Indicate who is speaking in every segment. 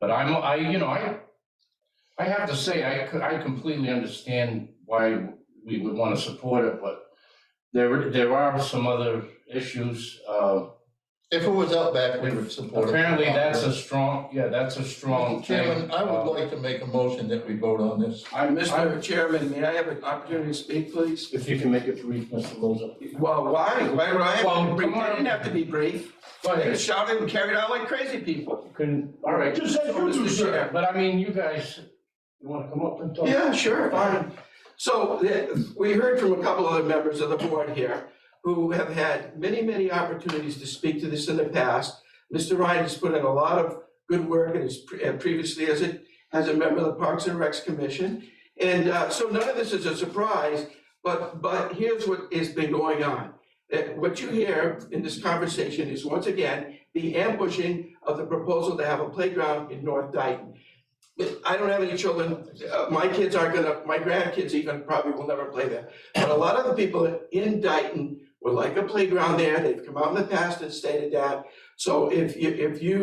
Speaker 1: But I'm, I, you know, I, I have to say, I, co- I completely understand why we would want to support it, but there, there are some other issues. Uh,
Speaker 2: If it was out back, we would support it.
Speaker 1: Apparently, that's a strong, yeah, that's a strong
Speaker 2: Mr.
Speaker 1: thing.
Speaker 2: Chairman, I
Speaker 1: Uh,
Speaker 2: would like to make a motion that we vote on this.
Speaker 3: Mr. Chairman, may I have an opportunity to speak, please?
Speaker 1: If you can make it brief, Mr. Loza.
Speaker 3: Well, why? Why would I have to
Speaker 1: Well,
Speaker 3: be brief?
Speaker 1: come on.
Speaker 3: I didn't have to be brief.
Speaker 1: Go
Speaker 3: They
Speaker 1: ahead.
Speaker 3: shouted and carried on like crazy people.
Speaker 1: Couldn't, all right.
Speaker 3: Just as you do, sir.
Speaker 1: But I mean, you guys, you want to come up and talk?
Speaker 3: Yeah, sure, fine. So eh, we heard from a couple other members of the board here who have had many, many opportunities to speak to this in the past. Mr. Ryan has put in a lot of good work and is pre- eh, previously as a, as a member of the Parks and Recs Commission. And uh, so none of this is a surprise, but, but here's what has been going on. Eh, What you hear in this conversation is once again the ambushing of the proposal to have a playground in North Dayton. I don't have any children, uh, my kids aren't gonna, my grandkids even probably will never play there. But a lot of the people in Dayton would like a playground there, they've come out in the past and stated that. So if you, if you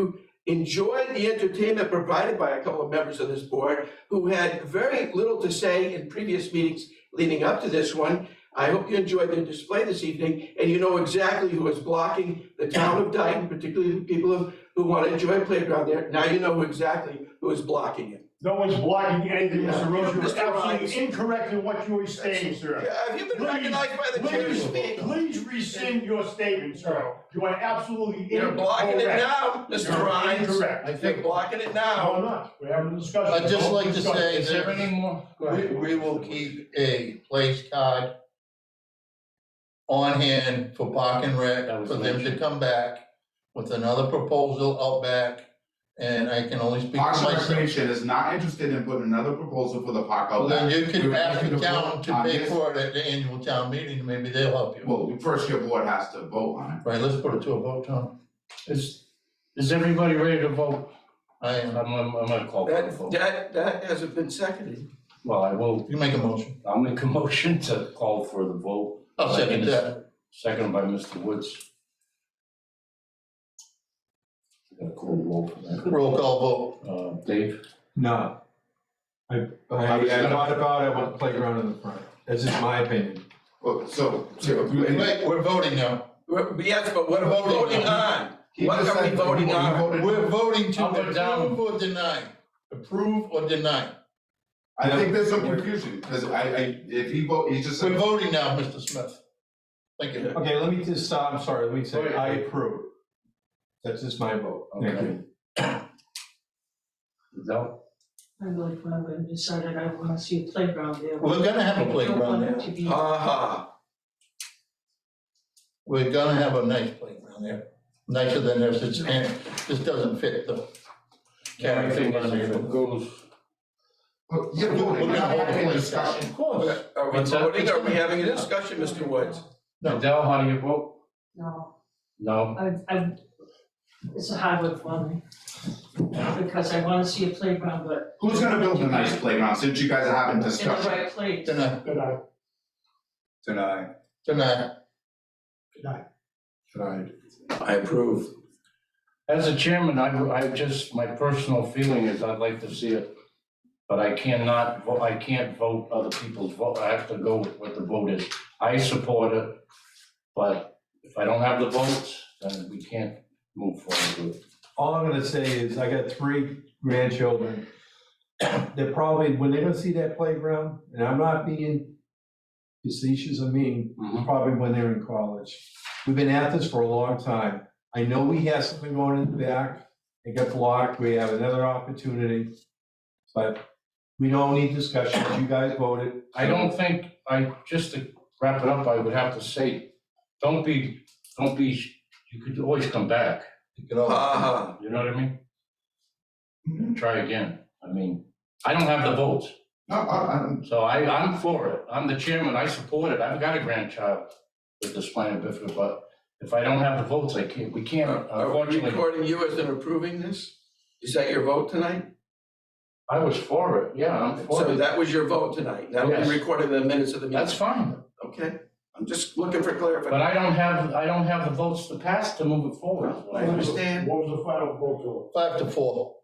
Speaker 3: enjoy the entertainment provided by a couple of members of this board who had very little to say in previous meetings leading up to this one, I hope you enjoyed their display this evening, and you know exactly who is blocking the town of Dayton, particularly the people of who want to enjoy a playground there, now you know exactly who is blocking it.
Speaker 4: No one's blocking anything,
Speaker 3: Yeah.
Speaker 4: Mr. Rose.
Speaker 3: Mr.
Speaker 4: You're
Speaker 3: Rhodes.
Speaker 4: absolutely incorrect in what you are saying, sir.
Speaker 3: Have you been
Speaker 4: Please,
Speaker 3: recognized by the chair to
Speaker 4: Please,
Speaker 3: speak?
Speaker 4: please rescind your statement, sir. You are absolutely incorrect.
Speaker 3: You're blocking it now,
Speaker 4: You're
Speaker 3: Mr. Rhines.
Speaker 4: Incorrect.
Speaker 2: I
Speaker 3: You're
Speaker 2: think,
Speaker 3: blocking it
Speaker 4: No,
Speaker 3: now.
Speaker 4: I'm not. We're having a discussion.
Speaker 2: I'd just
Speaker 4: Don't
Speaker 2: like to
Speaker 4: discuss.
Speaker 2: say
Speaker 1: Is there
Speaker 2: that
Speaker 1: any more? Go
Speaker 2: we,
Speaker 1: ahead.
Speaker 2: we will keep a place card on hand for Park and
Speaker 1: That
Speaker 2: Rec,
Speaker 1: was
Speaker 2: for them to
Speaker 1: mentioned.
Speaker 2: come back with another proposal out back. And I can only speak for
Speaker 5: Parks and
Speaker 2: myself.
Speaker 5: Recreation is not interested in putting another proposal for the park
Speaker 2: Well,
Speaker 5: out
Speaker 2: Then
Speaker 5: back.
Speaker 2: you
Speaker 5: We
Speaker 2: can
Speaker 5: were
Speaker 2: ask
Speaker 5: looking
Speaker 2: the
Speaker 5: to
Speaker 2: town
Speaker 5: vote
Speaker 2: to
Speaker 5: on
Speaker 2: pay
Speaker 5: this.
Speaker 2: for it at the annual town meeting, maybe they'll help you.
Speaker 5: Well, first your board has to vote on
Speaker 2: Right, let's put it to a vote, Tom.
Speaker 1: Is, is everybody ready to vote?
Speaker 2: I
Speaker 1: I'm,
Speaker 2: am,
Speaker 1: I'm I'm gonna call for a
Speaker 3: That,
Speaker 1: vote.
Speaker 3: that, that hasn't been seconded.
Speaker 1: Well, I will,
Speaker 2: you make a motion.
Speaker 1: I'll make a motion to call for the vote.
Speaker 2: I'll second that.
Speaker 1: Second by Mr. Woods. Got a cool roll for that.
Speaker 2: Roll call vote.
Speaker 1: Uh, Dave?
Speaker 6: No. I,
Speaker 5: I
Speaker 6: I,
Speaker 5: was
Speaker 6: I
Speaker 5: gonna-
Speaker 6: thought about it, I want the playground in the front. That's just my opinion.
Speaker 5: it. So, so-
Speaker 2: Wait, we're voting now.
Speaker 3: We're- Yes, but what are we voting on?
Speaker 5: He
Speaker 3: What
Speaker 5: just
Speaker 3: are we
Speaker 5: said-
Speaker 3: voting on?
Speaker 5: voted-
Speaker 2: We're voting to
Speaker 1: Up or down?
Speaker 2: approve or deny. Approve or deny.
Speaker 5: I think there's some confusion, because I, I, if he vote, he just
Speaker 2: We're
Speaker 5: said,
Speaker 2: voting now, Mr. Smith. Thank you.
Speaker 6: Okay, let me just, uh, I'm sorry, let me
Speaker 1: Wait.
Speaker 6: say, I approve. That's just my vote. Thank
Speaker 1: Okay.
Speaker 6: you.
Speaker 1: No?
Speaker 7: I really fun, but I decided I wanna see a playground there.
Speaker 2: We're gonna have a
Speaker 7: I don't
Speaker 2: playground
Speaker 7: want it
Speaker 2: there.
Speaker 7: to be-
Speaker 3: Uh-huh.
Speaker 2: We're gonna have a nice playground there. Nicer than this, it's, and this doesn't fit the.
Speaker 1: I think it goes.
Speaker 5: But you're
Speaker 2: We're
Speaker 5: voting,
Speaker 2: gonna
Speaker 5: you're
Speaker 2: hold
Speaker 5: having
Speaker 2: a
Speaker 5: a
Speaker 2: discussion.
Speaker 5: discussion.
Speaker 2: Of course.
Speaker 3: Are we
Speaker 1: What's that?
Speaker 3: voting? Are we having a discussion, Mr. Woods?
Speaker 2: No.
Speaker 1: Adele, how do you vote?
Speaker 7: No,
Speaker 1: No?
Speaker 7: I, I, it's a hard one for me, because I wanna see a playground, but
Speaker 5: Who's gonna build the nice playground, since you guys are having
Speaker 7: in the
Speaker 5: discussion
Speaker 7: right place.
Speaker 2: Deny,
Speaker 4: Good night.
Speaker 5: tonight?
Speaker 2: deny.
Speaker 5: Tonight.
Speaker 3: I approve.
Speaker 1: As a chairman, I, I just, my personal feeling is I'd like to see it, but I cannot, vo- I can't vote other people's vote. I have to go with what the vote is. I support it, but if I don't have the votes, then we can't move forward with it.
Speaker 6: All I'm gonna say is, I got three grandchildren. They're probably, when they're gonna see that playground, and I'm not being facetious or mean,
Speaker 1: Mhm.
Speaker 6: probably when they're in college. We've been at this for a long time. I know we had something going in the back. It got blocked. We have another opportunity. But we don't need discussions. You guys voted.
Speaker 1: I don't think, I, just to wrap it up, I would have to say, don't be, don't be, you could always come back,
Speaker 2: You can all-
Speaker 3: Uh-huh.
Speaker 1: you know what I mean? And Try again, I mean, I don't have the votes,
Speaker 5: No, I, I'm,
Speaker 1: so I, I'm for it, I'm the chairman, I support it, I've got a grandchild with the spina bifida, but if I don't have the votes, I can't, we can't, uh,
Speaker 3: Are are we
Speaker 1: unfortunately.
Speaker 3: recording you as in approving this? Is that your vote tonight?
Speaker 1: I was for it, yeah, I'm for
Speaker 3: So
Speaker 1: it,
Speaker 3: that was your vote tonight. Now we
Speaker 1: Yes.
Speaker 3: recorded the minutes of the meeting.
Speaker 1: that's fine,
Speaker 3: Okay, I'm just looking for
Speaker 1: but
Speaker 3: clarification.
Speaker 1: I don't have, I don't have the votes to pass to move it forward.
Speaker 3: I understand.
Speaker 4: What was the final vote,
Speaker 2: Five to four.